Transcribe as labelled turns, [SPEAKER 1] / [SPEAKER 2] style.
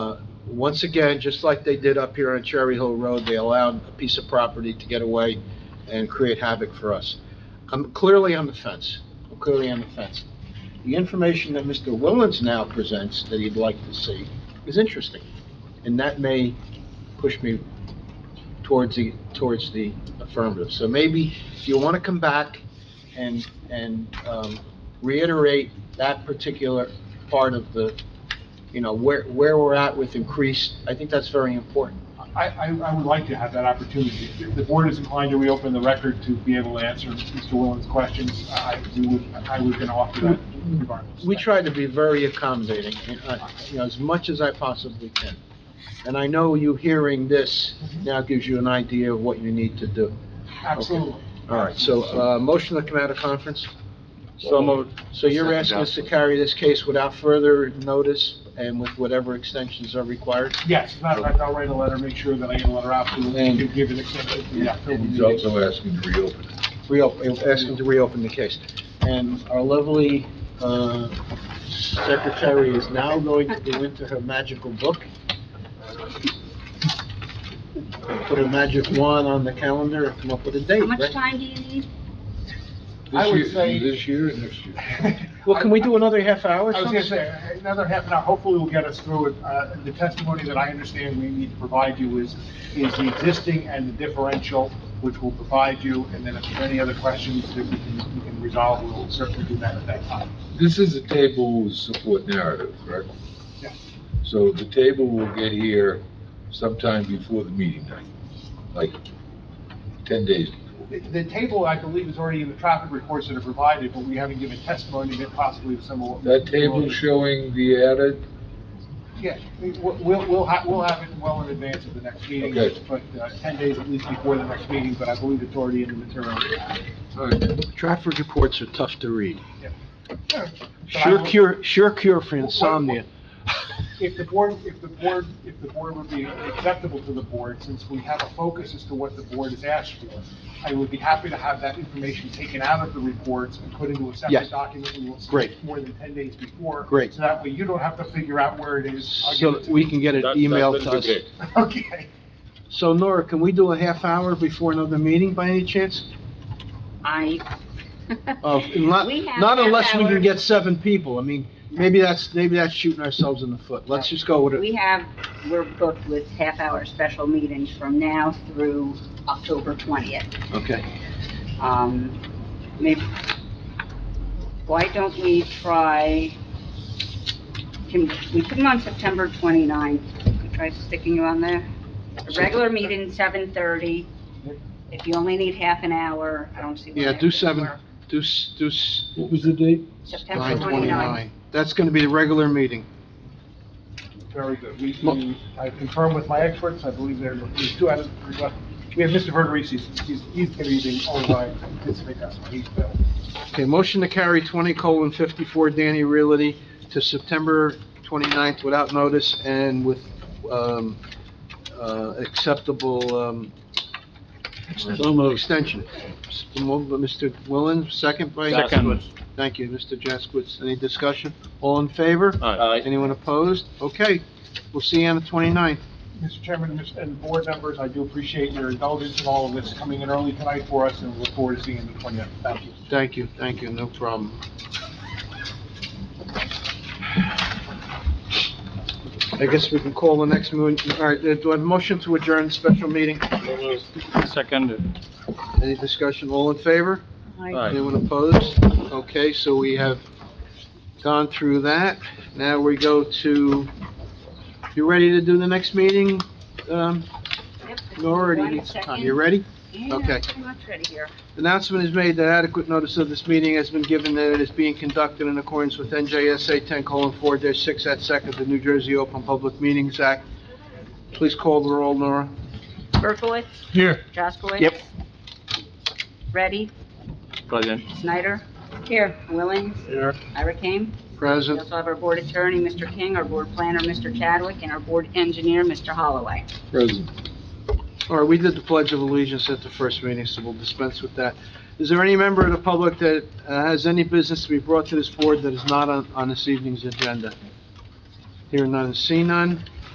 [SPEAKER 1] Once again, just like they did up here on Cherry Hill Road, they allowed a piece of property to get away and create havoc for us. I'm clearly on the fence. I'm clearly on the fence. The information that Mr. Willens now presents that he'd like to see is interesting, and that may push me towards the, towards the affirmative. So maybe if you want to come back and, and um, reiterate that particular part of the, you know, where, where we're at with increased, I think that's very important.
[SPEAKER 2] I, I, I would like to have that opportunity. If the board is inclined to reopen the record to be able to answer Mr. Willens' questions, I, we would, I was gonna offer that regardless.
[SPEAKER 1] We try to be very accommodating, uh, you know, as much as I possibly can. And I know you hearing this now gives you an idea of what you need to do.
[SPEAKER 2] Absolutely.
[SPEAKER 1] All right, so, uh, motion to come out of conference?
[SPEAKER 3] So moved.
[SPEAKER 1] So you're asking us to carry this case without further notice and with whatever extensions are required?
[SPEAKER 2] Yes, as a matter of fact, I'll write a letter, make sure that I get a letter out to them,
[SPEAKER 1] And-
[SPEAKER 2] give an extension to the October
[SPEAKER 4] And he's
[SPEAKER 2] meeting.
[SPEAKER 4] also asking to reopen it.
[SPEAKER 1] Reopen, ask them to reopen the case. And our lovely, uh, secretary is now going to go into her magical book. Put a magic wand on the calendar and come up with a date,
[SPEAKER 5] How much
[SPEAKER 1] right?
[SPEAKER 5] time do you need?
[SPEAKER 2] I
[SPEAKER 4] This
[SPEAKER 2] would
[SPEAKER 4] year-
[SPEAKER 2] say-
[SPEAKER 4] This year and next year.
[SPEAKER 1] Well, can we do another half hour or
[SPEAKER 2] I was
[SPEAKER 1] something?
[SPEAKER 2] gonna say, another half an hour, hopefully will get us through it. Uh, the testimony that I understand we need to provide you is, is the existing and the differential, which we'll provide you, and then if there are any other questions that we can, we can resolve, we'll certainly do that at that time.
[SPEAKER 4] This is a table with support narrative, correct?
[SPEAKER 2] Yeah.
[SPEAKER 4] So the table will get here sometime before the meeting night, like ten days.
[SPEAKER 2] The- The table, I believe, is already in the traffic reports that are provided, but we haven't given testimony that possibly some of.
[SPEAKER 4] That table showing the added,
[SPEAKER 2] Yeah, we- we'll, we'll have, we'll have it well in advance of the next meeting,
[SPEAKER 4] Okay.
[SPEAKER 2] but uh, ten days at least before the next meeting, but I believe it's already in the material.
[SPEAKER 4] all right,
[SPEAKER 1] Traffic reports are tough to read.
[SPEAKER 2] But I
[SPEAKER 1] Sure
[SPEAKER 2] will-
[SPEAKER 1] cure, sure cure for insomnia.
[SPEAKER 2] If the board, if the board, if the board would be acceptable to the board, since we have a focus as to what the board has asked for, I would be happy to have that information taken out of the reports and put into a
[SPEAKER 1] Yes.
[SPEAKER 2] separate document we will
[SPEAKER 1] Great.
[SPEAKER 2] submit more than ten days before.
[SPEAKER 1] Great.
[SPEAKER 2] So that way you don't have to figure out where it is. I'll
[SPEAKER 1] So
[SPEAKER 2] give it
[SPEAKER 1] that
[SPEAKER 2] to
[SPEAKER 1] we
[SPEAKER 2] you.
[SPEAKER 1] can get it
[SPEAKER 3] That- that's
[SPEAKER 1] emailed
[SPEAKER 3] been
[SPEAKER 1] to
[SPEAKER 3] the
[SPEAKER 1] us.
[SPEAKER 3] case.
[SPEAKER 2] Okay.
[SPEAKER 1] So Nora, can we do a half hour before another meeting by any chance?
[SPEAKER 5] I.
[SPEAKER 1] Of, Uh, not,
[SPEAKER 5] We have
[SPEAKER 1] not
[SPEAKER 5] half
[SPEAKER 1] unless we
[SPEAKER 5] hour.
[SPEAKER 1] can get seven people. I mean, maybe that's, maybe that's shooting ourselves in the foot. Let's just go with
[SPEAKER 5] We
[SPEAKER 1] it.
[SPEAKER 5] have, we're booked with half-hour special meetings from now through October 20th.
[SPEAKER 1] Okay.
[SPEAKER 5] Um, maybe, why don't we try, can, we put them on September 29th? Can we Try sticking you on there? A regular meeting, 7:30. If you only need half an hour, I don't see why.
[SPEAKER 1] Yeah,
[SPEAKER 5] that
[SPEAKER 1] do
[SPEAKER 5] wouldn't
[SPEAKER 1] seven,
[SPEAKER 5] work.
[SPEAKER 1] do, s- do s-
[SPEAKER 4] what was the date?
[SPEAKER 5] September
[SPEAKER 1] nine
[SPEAKER 5] 29th.
[SPEAKER 1] twenty-nine. That's gonna be the regular meeting.
[SPEAKER 2] Very good. We,
[SPEAKER 1] Mo-
[SPEAKER 2] we- I confirmed with my experts, I believe there, there's two out of three left. We have Mr. Verderisi, he's, he's gonna be the only one to participate, that's why he's available.
[SPEAKER 1] Okay, motion to carry twenty colon fifty-four Danny Realty to September 29th without notice and with, um, uh, acceptable, um, extension. Moved by Mr. Willen, second by?
[SPEAKER 3] Second.
[SPEAKER 1] Thank you, Mr. Jaskowitz. Any discussion? All in favor?
[SPEAKER 3] Aye.
[SPEAKER 1] Anyone opposed? Okay, we'll see you on the 29th.
[SPEAKER 2] Mr. Chairman Mr. and board members, I do appreciate your indulgence in all of this coming in early tonight for us, and we look forward to seeing you on the 20th. Thank you.
[SPEAKER 1] Thank you, thank you, no problem. I guess we can call the next moon, all right, uh, do I have a motion to adjourn the special meeting?
[SPEAKER 3] Second.
[SPEAKER 1] Any discussion? All in favor?
[SPEAKER 3] Aye.
[SPEAKER 1] Anyone opposed? Okay, so we have gone through that. Now we go to, you ready to do the next meeting? Um,
[SPEAKER 5] Yep, just
[SPEAKER 1] Nora, do you
[SPEAKER 5] one
[SPEAKER 1] need some time?
[SPEAKER 5] second.
[SPEAKER 1] You ready?
[SPEAKER 5] Yeah,
[SPEAKER 1] Okay.
[SPEAKER 5] pretty much ready here.
[SPEAKER 1] Announcement is made that adequate notice of this meeting has been given that it is being conducted in accordance with NJSA 10:4-6 at second, the New Jersey Open Public Meetings Act. Please call the roll, Nora.
[SPEAKER 5] Berkowitz?
[SPEAKER 4] Here.
[SPEAKER 5] Jaskowitz?
[SPEAKER 1] Yep.
[SPEAKER 5] Ready?
[SPEAKER 3] Present.
[SPEAKER 5] Snyder? Here. Willens?
[SPEAKER 1] Here.
[SPEAKER 5] Ira Kane? We
[SPEAKER 1] Present.
[SPEAKER 5] also have our board attorney, Mr. King, our board planner, Mr. Chadwick, and our board engineer, Mr. Holloway.
[SPEAKER 4] Present.
[SPEAKER 1] All right, we did the Pledge of Allegiance at the first meeting, so we'll dispense with that. Is there any member of the public that uh, has any business to be brought to this board that is not on on this evening's agenda? Hear none, see none.